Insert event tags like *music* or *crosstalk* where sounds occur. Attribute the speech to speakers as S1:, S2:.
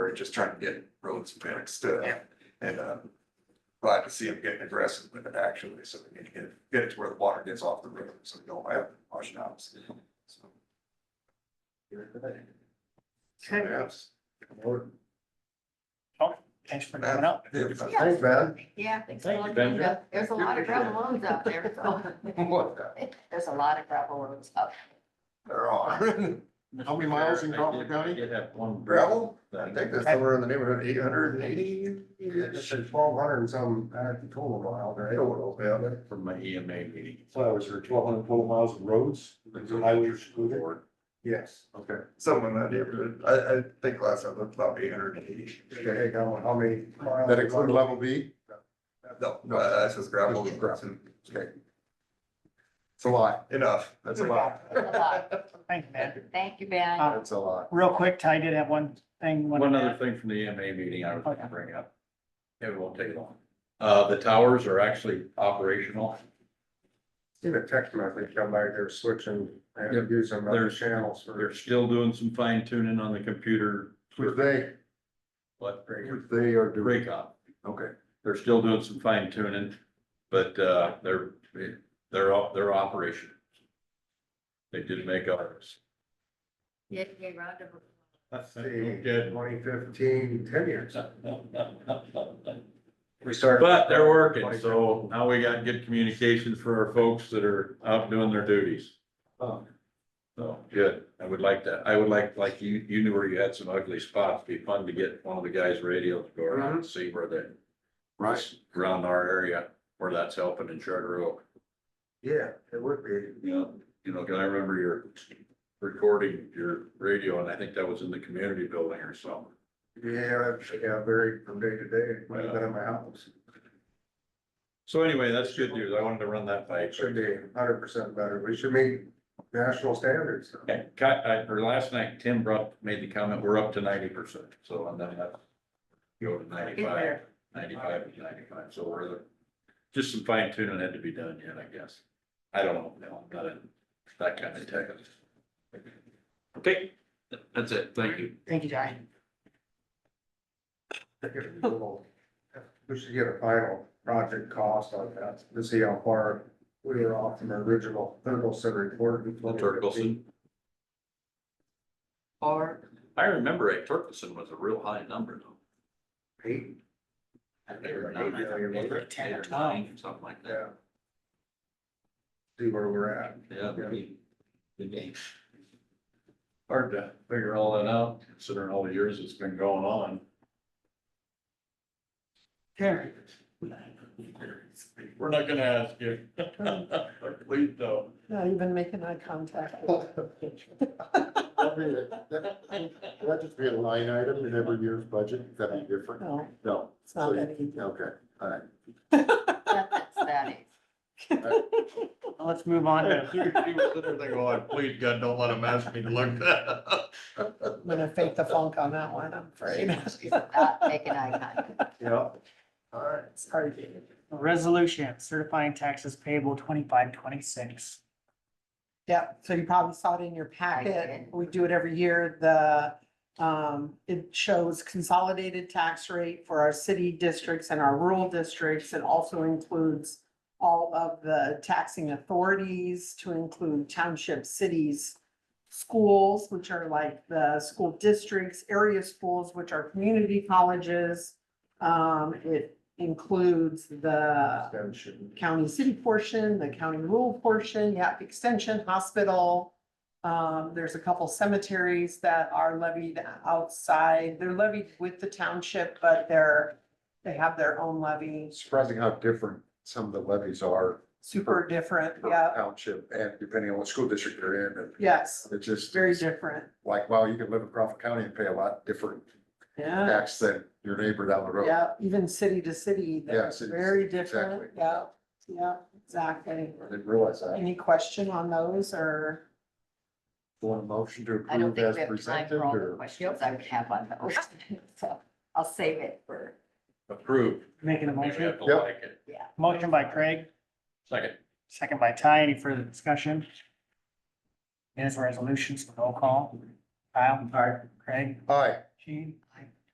S1: we're just trying to get roads fixed, uh, and, uh, glad to see them getting aggressive with it actually, so we need to get, it- get it to where the water gets off the road, so we don't have washing outs. So. Yes.
S2: Thanks for coming up.
S1: Yeah.
S3: Thanks, man.
S4: Yeah, thanks.
S2: Thank you,
S4: Well,
S2: Benjamin.
S4: yeah, There's a lot of gravel roads out there, so *laughs* there's a lot of gravel roads out.
S1: There are.
S3: How many miles in Crawford County?
S5: Did have one.
S1: Gravel?
S5: that-
S3: I think that's somewhere in the neighborhood, eight hundred and eighty, twelve hundred and some, uh, total mile, right? Total, yeah.
S5: From my
S3: E
S5: EMA meeting.
S6: So I was for twelve hundred total miles of roads, highways included.
S3: Yes.
S1: Okay, someone in that neighborhood, I, I think last I looked, about eight hundred and eighty.
S3: Okay, how how many? miles?
S6: That include level B?
S1: No, no, that's just gravel.
S3: Just
S1: Okay,
S6: It's a lot.
S1: enough, that's a lot.
S4: It's a lot.
S2: Thank you, man.
S4: Thank you, Ben.
S2: Uh,
S6: That's a lot.
S2: Real quick, Ty did have one thing.
S5: One other thing from the EMA meeting I was
S2: Okay.
S5: gonna bring up. It won't take long. Uh, the towers are actually operational.
S3: Seen a text message come by, they're switching, and using other
S5: There's-
S3: channels
S5: They're
S3: for.
S5: still doing some fine tuning on the computer,
S6: Which they,
S5: but
S6: which they are doing.
S5: break up.
S6: Okay.
S5: They're still doing some fine tuning, but, uh, they're, they're, op- they're operational. They did make *laughs* ours.
S4: Yeah, yeah, round of-
S3: The twenty fifteen, ten years.
S6: We started.
S5: But they're working, so now we got good communications for our folks that are out doing their duties.
S3: Oh.
S5: So, good, I would like that, I would like, like you, you knew where you had some ugly spots, be fun to get one of the guys' radios, to go around
S3: Mm-hmm.
S5: and see where they.
S6: Right.
S5: Around our area, where that's helping in Charter Oak,
S3: Yeah, it would be.
S5: you know, you know, 'cause I remember your recording your radio, and I think that was in the community building or something.
S3: Yeah, yeah, very from day to day, when I've been in my house.
S5: So anyway, that's good news, I wanted to run that by you.
S3: It should be hundred percent better. We should meet national standards.
S5: Okay, cut, I, or last night, Tim brought, made the comment, we're up to ninety percent, so and then that. Go to ninety-five,
S4: there.
S5: ninety-five, ninety-five, so we're, the- just some fine tuning had to be done yet, I guess. I don't know, no, I'm not in that kind of tech. Okay, that's it, thank you.
S2: Thank you, Ty.
S3: We should get a final project cost on that to see how far we were off from our original Ferguson report.
S5: Torkelson. I remember a Torkelson was a real high number though.
S3: Eight,
S5: They were
S3: Eight
S5: nine, I think,
S3: million,
S5: eight or
S2: wasn't it? Ten or
S5: nine, Something like that,
S3: yeah. See where we're at.
S5: yeah.
S3: Yeah.
S5: we- we need- Hard to figure all that out, considering all the years it's been going on.
S2: Here,
S5: We're not gonna ask you. *laughs* Please don't.
S7: Not even making eye contact.
S6: That'd be a- That that'd just be a line item in every year's budget, that'd be different.
S7: No,
S6: No.
S7: it's
S6: So
S7: not
S6: you-
S7: that *laughs* easy.
S6: Okay, all right.
S4: That's that
S2: let's move on to,
S5: please God, don't let him ask me to look that up.
S7: I'm gonna fake the funk on that one, I'm afraid. *laughs*
S4: is. Not making eye contact.
S3: Yeah. All right.
S7: It's hard to.
S2: resolution certifying taxes payable twenty-five, twenty-six.
S7: Yeah, so you probably saw it in your packet.
S4: did.
S7: We do it every year. The, um, it shows consolidated tax rate for our city districts and our rural districts. It also includes all of the taxing authorities to include township cities, schools, which are like the school districts, area schools, which are community colleges. Um, it includes the
S3: Extension.
S7: county city portion, the county rural portion, yeah, extension, hospital. Um, there's a couple cemeteries that are levied outside. They're levied with the township, but they're, they have their own levy.
S6: Surprising how different some of the levies are.
S7: Super different,
S6: per
S7: yeah,
S6: Township and depending on what school district you're in, and
S7: yes,
S6: it's just
S7: very different,
S6: like, wow, you can live in Crawford County and pay a lot different
S4: Uh,
S7: yeah,
S6: tax than your neighbor down the road.
S7: yeah, even city to city,
S6: Yeah,
S7: they're
S6: city to
S7: very
S6: city,
S7: different,
S6: exactly.
S7: yeah, yeah, exactly.
S6: I didn't realize that.
S7: Any question on those or?
S6: Want a motion to
S4: I don't
S6: approve
S4: think
S6: as
S4: we have time
S6: presented
S4: for all the
S6: or?
S4: questions I would have on those. *laughs* So I'll save it for,
S5: Approved.
S2: Making a
S5: Maybe I
S2: motion,
S5: have to
S6: Yep.
S5: like it.
S4: yeah.
S2: motion by Craig,
S5: Second,
S2: second by Ty. Any further discussion? It is resolutions, roll call. Kyle. Craig.
S6: Aye,
S2: Gene.